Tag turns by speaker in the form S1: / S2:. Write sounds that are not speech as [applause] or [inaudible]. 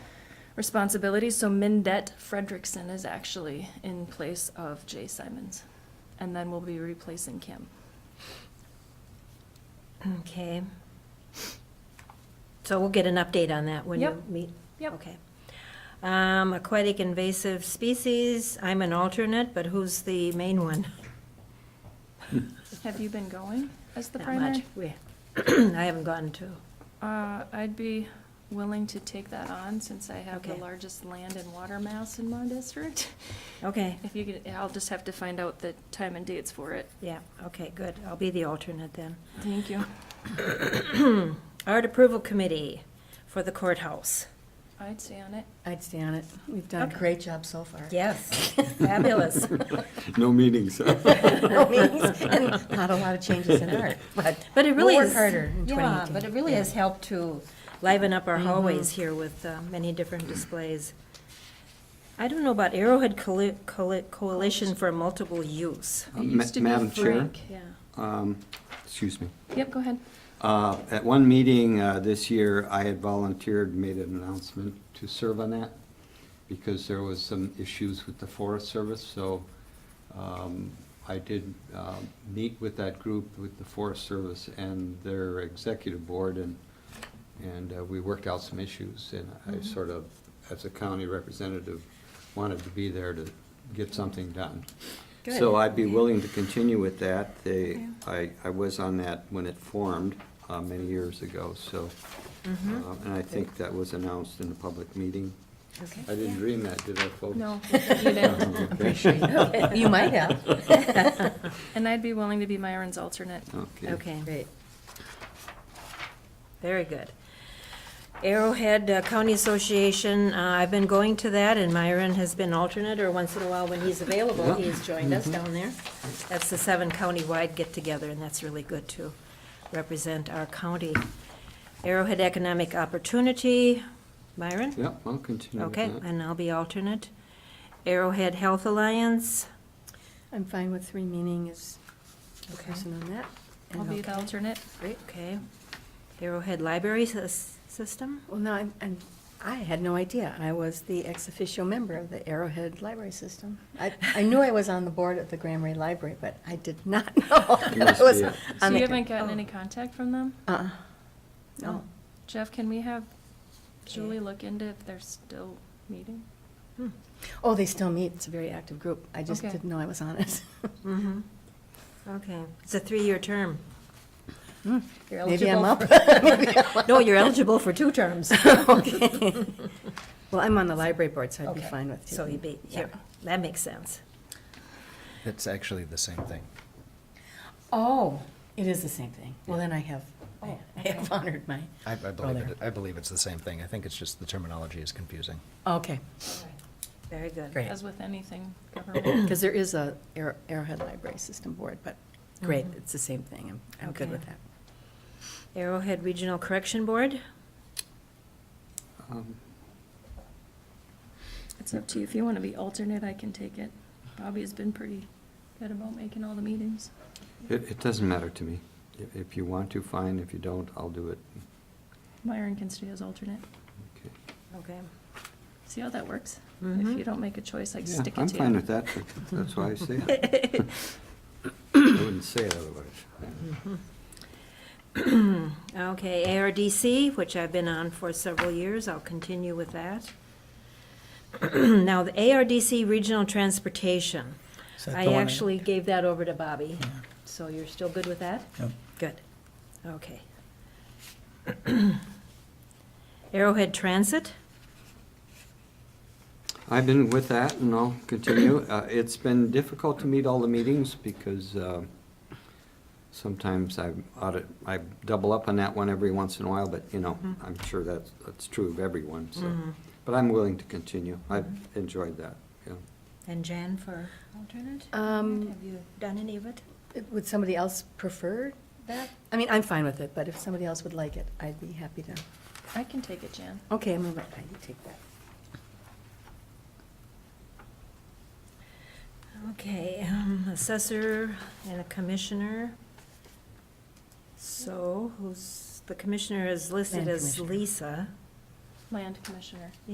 S1: responsibilities. So Mindette Fredrickson is actually in place of Jay Simons. And then we'll be replacing Kim.
S2: Okay. So we'll get an update on that when you
S1: Yep.
S2: meet?
S1: Yep.
S2: Okay. Um, Aquatic invasive species, I'm an alternate, but who's the main one?
S1: Have you been going as the
S2: Not
S1: primary?
S2: much. We- [clears throat] I haven't gotten to.
S1: Uh, I'd be willing to take that on since I have the
S2: Okay.
S1: largest land and water mass in my district.
S2: Okay,
S1: If you could, I'll just have to find out the time and dates for it.
S2: yeah, okay, good. I'll be the alternate then.
S1: Thank you.
S2: Art approval committee for the courthouse.
S1: I'd stay on it.
S3: I'd stay on it. We've done a
S2: Okay.
S3: great job so far.
S2: Yes, [laughs] fabulous.
S1: [laughs]
S4: No meetings. Uh,
S3: And [laughs] Not a lot of changes in
S2: [laughs]
S3: art, but
S2: But it
S3: we'll
S2: really
S3: work
S2: is-
S3: harder in
S2: Yeah, but
S3: 2018.
S2: it really has helped to liven up our
S3: Mm-hmm.
S2: hallways here with uh, many different displays. I don't know about Arrowhead Coali- Coali- Coalition for Multiple Use.
S1: It
S4: Uh, Ma-
S1: used to be
S4: Madam Chair?
S1: Frank. Yeah.
S4: Um, Excuse me.
S1: Yep, go ahead.
S4: Uh, At one meeting uh, this year, I had volunteered, made an announcement to serve on that because there was some issues with the Forest Service, so um, I did um, meet with that group, with the Forest Service and their executive board, and, and uh, we worked out some issues. And I sort of, as a county representative, wanted to be there to get something done. So I'd be willing to continue with that. They, I, I was on that when it formed uh, many years ago, so.
S1: Mm-hmm.
S4: uh, And I think that was announced in a public meeting.
S3: Okay.
S4: I didn't dream that, did I, folks?
S1: No, you didn't.
S4: [laughs] Okay.
S2: [laughs]
S3: You might have.
S1: And I'd be willing to be Myron's alternate.
S4: Okay.
S2: Okay,
S3: Great.
S2: very good. Arrowhead uh, County Association, uh, I've been going to that, and Myron has been alternate, or once in a while when he's available,
S4: Yeah. Mm-hmm.
S2: he's joined us down there. That's the seven county-wide get-together, and that's really good to represent our county. Arrowhead Economic Opportunity, Myron?
S4: Yep, I'll continue with
S2: Okay,
S4: that.
S2: and I'll be alternate. Arrowhead Health Alliance,
S3: I'm fine with three meaning is a
S2: Okay.
S3: person on that.
S1: I'll
S3: And
S1: be the
S3: okay.
S1: alternate.
S2: okay. Arrowhead Library Sys- System,
S3: Well, no, I'm- I'm, I had no idea. I was the ex officio member of the Arrowhead Library System. I, I knew I was on the board of the Grand Marais Library, but I did not [laughs] know that
S4: must
S3: I was
S4: be a- E
S1: So
S3: on
S1: you
S3: the.
S1: haven't gotten any contact from them? Oh.
S3: Uh-uh.
S2: Oh.
S3: No.
S1: Jeff, can we have Julie look into if they're still meeting?
S2: Hmm.
S3: Oh, they still meet. It's a very active group. I just
S1: Okay.
S3: didn't know I was on it. [laughs]
S2: Mm-hmm. okay. It's a three-year term.
S3: Hmm, Maybe I'm up. [laughs]
S2: No, you're eligible for two terms.
S3: Well, I'm on the library board, so I'd be
S2: Okay.
S3: fine with.
S2: So
S3: taking-
S2: you'd be,
S3: yeah.
S2: yeah, that makes sense.
S5: It's actually the same thing.
S3: Oh, it is the same thing. Well, then I have, I [laughs] I have honored my.
S5: I, I
S3: Oh,
S5: believe
S3: there.
S5: it, I believe it's the same thing. I think it's just the terminology is confusing.
S3: Okay,
S2: Very good.
S3: great.
S1: As with
S3: [coughs]
S1: anything government.
S3: Because there is a Arrow- Arrowhead Library System Board, but great, it's the same thing. I'm, I'm good
S2: Okay.
S3: with that.
S2: Arrowhead Regional Correction Board,
S4: Um,
S1: It's up to you. If you want to be alternate, I can take it. Bobby has been pretty good about making all the meetings.
S4: It, it doesn't matter to me. If- If you want to, fine. If you don't, I'll do it.
S1: Myron can stay as alternate.
S4: Okay.
S2: okay.
S1: See how that works? If
S3: Mm-hmm.
S2: Mhm.
S1: you don't make a choice, I
S4: Yeah,
S1: stick
S4: I'm
S1: it to you.
S4: fine with that. That's why I say it.
S1: [laughs]
S4: I wouldn't say it otherwise.
S2: Okay, ARDC, which I've been on for several years, I'll continue with that. [clears throat] Now, the ARDC Regional Transportation,
S6: Is that
S2: I
S6: the one
S2: actually gave that over to Bobby, so you're still good with that?
S6: Yep.
S2: Good, okay. [clears throat] Arrowhead Transit,
S4: I've been with that and I'll continue. Uh, It's been difficult to meet all the meetings because uh, sometimes I audit, I double up on that one every once in a while, but you know, I'm sure that's, that's true of everyone, so. But I'm willing to continue. I've enjoyed that, yeah.
S2: and Jan for alternate?
S3: Um,
S2: Have you done any of it?
S3: Would somebody else prefer that? I mean, I'm fine with it, but if somebody else would like it, I'd be happy to.
S1: I can take it, Jan.
S3: Okay, I'm going to let Heidi take that.
S2: Okay, um, assessor and a commissioner. So who's, the commissioner is listed
S3: Land
S2: as
S3: commissioner.
S2: Lisa.
S1: Land Commissioner.